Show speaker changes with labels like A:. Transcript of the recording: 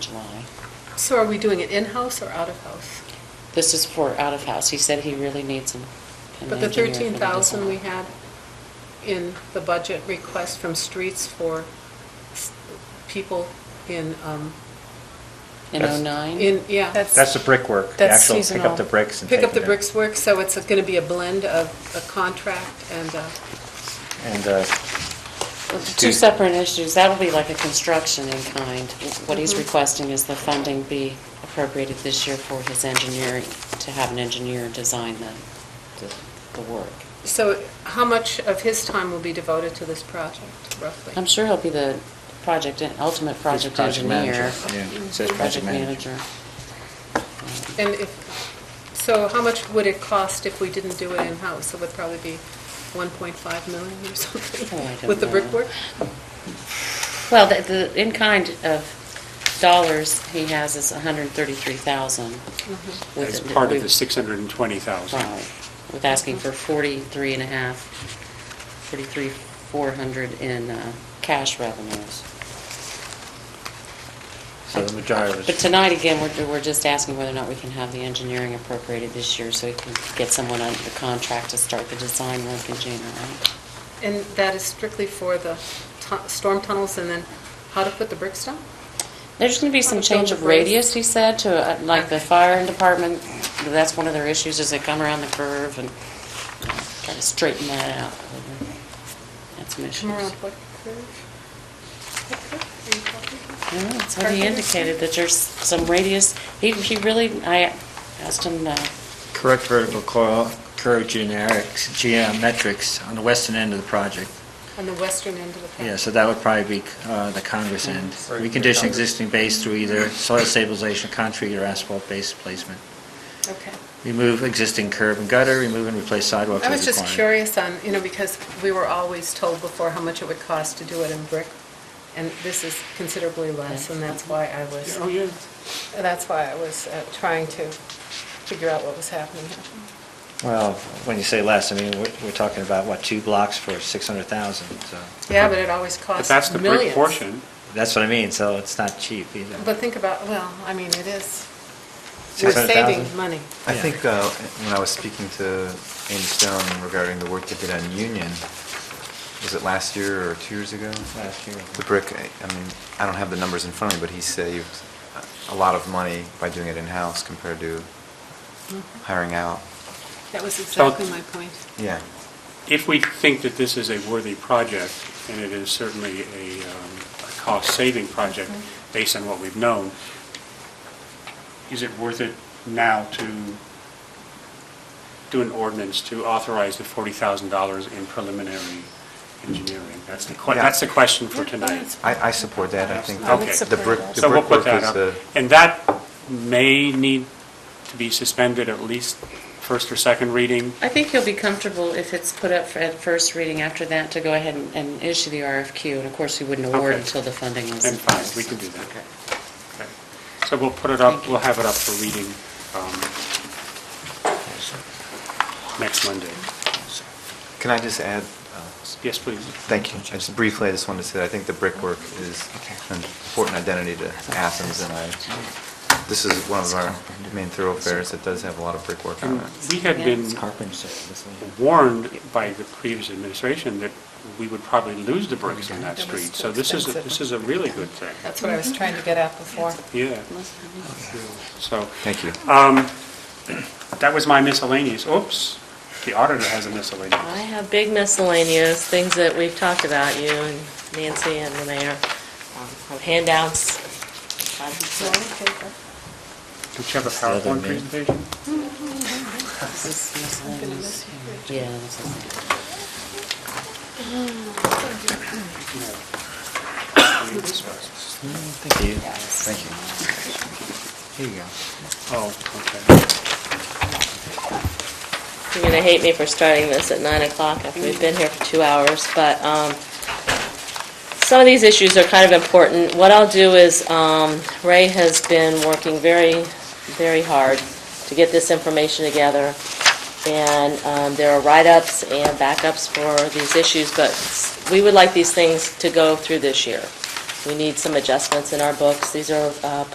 A: July.
B: So are we doing it in-house or out-of-house?
A: This is for out of house. He said he really needs an an
B: But the
A: engineer for
B: thirteen thousand we
A: design.
B: had in the budget request from streets for s- people in, um,
A: In
C: That's-
A: '09?
B: in, yeah.
C: That's the brickwork, the
D: That's
C: actual pick
D: seasonal.
C: up the bricks and
B: Pick up
C: take
B: the
C: it
B: bricks work, so it's gonna be a blend of a contract and, uh,
C: in. And, uh,
A: Two separate issues. That'll be like a construction in kind. What he's
B: Mm-hmm.
A: requesting is the funding be appropriated this year for his engineering, to have an engineer design the, the- the work.
B: so how much of his time will be devoted to this project roughly?
A: I'm sure he'll be the project, ultimate
C: it's
A: project
C: project manager.
A: engineer.
C: Yeah, it says
A: Project
C: project manager.
A: manager.
B: And if, so how much would it cost if we didn't do it in-house? It would probably be one point five million or something
A: Oh, I don't
B: with the
A: know.
B: brickwork?
A: Well, the, the in-kind of dollars he has is 133,000. with-
E: That's part of
A: we've-
E: the 620,000.
A: Right, with asking for 43 and a half, 43, 400 in uh, cash revenues.
C: So the majority
A: But
C: was,
A: tonight, again, we're, we're just asking whether or not we can have the engineering appropriated this year so we can get someone under the contract to start the design work in January.
B: And that is strictly for the tu- storm tunnels and then how to put the bricks down?
A: There's going to be some
B: Wanna build
A: change of
B: the bridge?
A: radius, he said, to, uh, like, the fire department, that's one of their issues, is they come around the curve and try to straighten that out. That's some issues.
B: Come around what curve? What curve are you talking about?
A: No, that's what he
B: Parking?
A: indicated, that there's some radius, he, he really, I asked him, uh,
C: correct vertical coil, curve generics, geometrics on the western end of the project.
B: On the western end of the path?
C: Yeah, so that would probably be uh, the Congress end.
F: Right,
C: Recondition
F: Congress.
C: existing base through either soil stabilization, concrete, or asphalt base placement.
B: Okay.
C: Remove existing curb and gutter, remove and replace sidewalks
B: I
C: as
B: was just
C: required.
B: curious on, you know, because we were always told before how much it would cost to do it in brick, and this is considerably less, and that's why I was,
E: Oh, yeah.
B: that's why I was uh, trying to figure out what was happening here.
C: Well, when you say less, I mean, we're we're talking about, what, two blocks for 600,000, so
B: Yeah, but it always
E: But
B: costs
E: that's the brick
B: millions.
E: portion.
C: that's what I mean, so it's not cheap either.
B: But think about, well, I mean, it is, we're saving
C: 600,000?
B: money.
F: I
C: Yeah.
F: think uh, when I was speaking to Amy Stone regarding the work they did on Union, was it last year or two years ago?
C: Last year.
F: The brick, I I mean, I don't have the numbers in front of me, but he saved a lot of money by doing it in-house compared to hiring out.
B: That was exactly my point.
F: Yeah.
E: If we think that this is a worthy project, and it is certainly a um, a cost-saving project based on what we've known, is it worth it now to do an ordinance to authorize the $40,000 in preliminary engineering? That's the, que-
F: Yeah.
E: that's the question for
B: Yeah,
E: tonight.
B: that's-
F: I, I support that. I think
E: I would
F: the- the
B: support
F: brick,
B: that.
F: the
E: So we'll put
F: brickwork
E: that
F: was
E: up.
F: the,
E: And that may need to be suspended at least first or second reading.
A: I think he'll be comfortable if it's put up for- at first reading after that to go ahead and, and issue the RFQ, and of course, he wouldn't award
E: Okay.
A: until the funding was.
E: Then
A: in
E: fine,
A: place.
E: we can do that.
A: Okay.
E: Okay. So we'll put it up, we'll have it up for reading um, next Monday.
F: can I just add, uh,
E: Yes, please.
F: Thank you. I Just briefly, I just wanted to say, I think the brickwork is an important identity to Athens, and I, this is one of our main thoroughfares that does have a lot of brickwork on
B: Uh,
E: And
F: it.
E: we had been warned by the previous administration that we would probably lose the bricks on that
B: That was
E: street.
B: too
E: So this is, a-
B: expensive.
E: this is a really good thing.
B: That's what I was trying to get at before.
E: Yeah. So
F: Thank you.
E: that was my miscellaneous. Oops, the auditor has a miscellaneous.
D: I have big miscellaneous, things that we've talked about, you and Nancy and the mayor, um, handouts.
E: Don't you have a
C: the other
E: PowerPoint
C: main-
E: presentation?
A: This is miscellaneous. Yeah, this is-
C: Thank you.
F: Thank you. Here you go.
E: Oh, okay.
D: You're gonna hate me for starting this at nine o'clock after we've been here for two hours, but, um, some of these issues are kind of important. What I'll do is, um, Ray has been working very, very hard to get this information together. And, um, there are write-ups and backups for these issues, but we would like these things to go through this year. We need some adjustments in our books. These are, uh,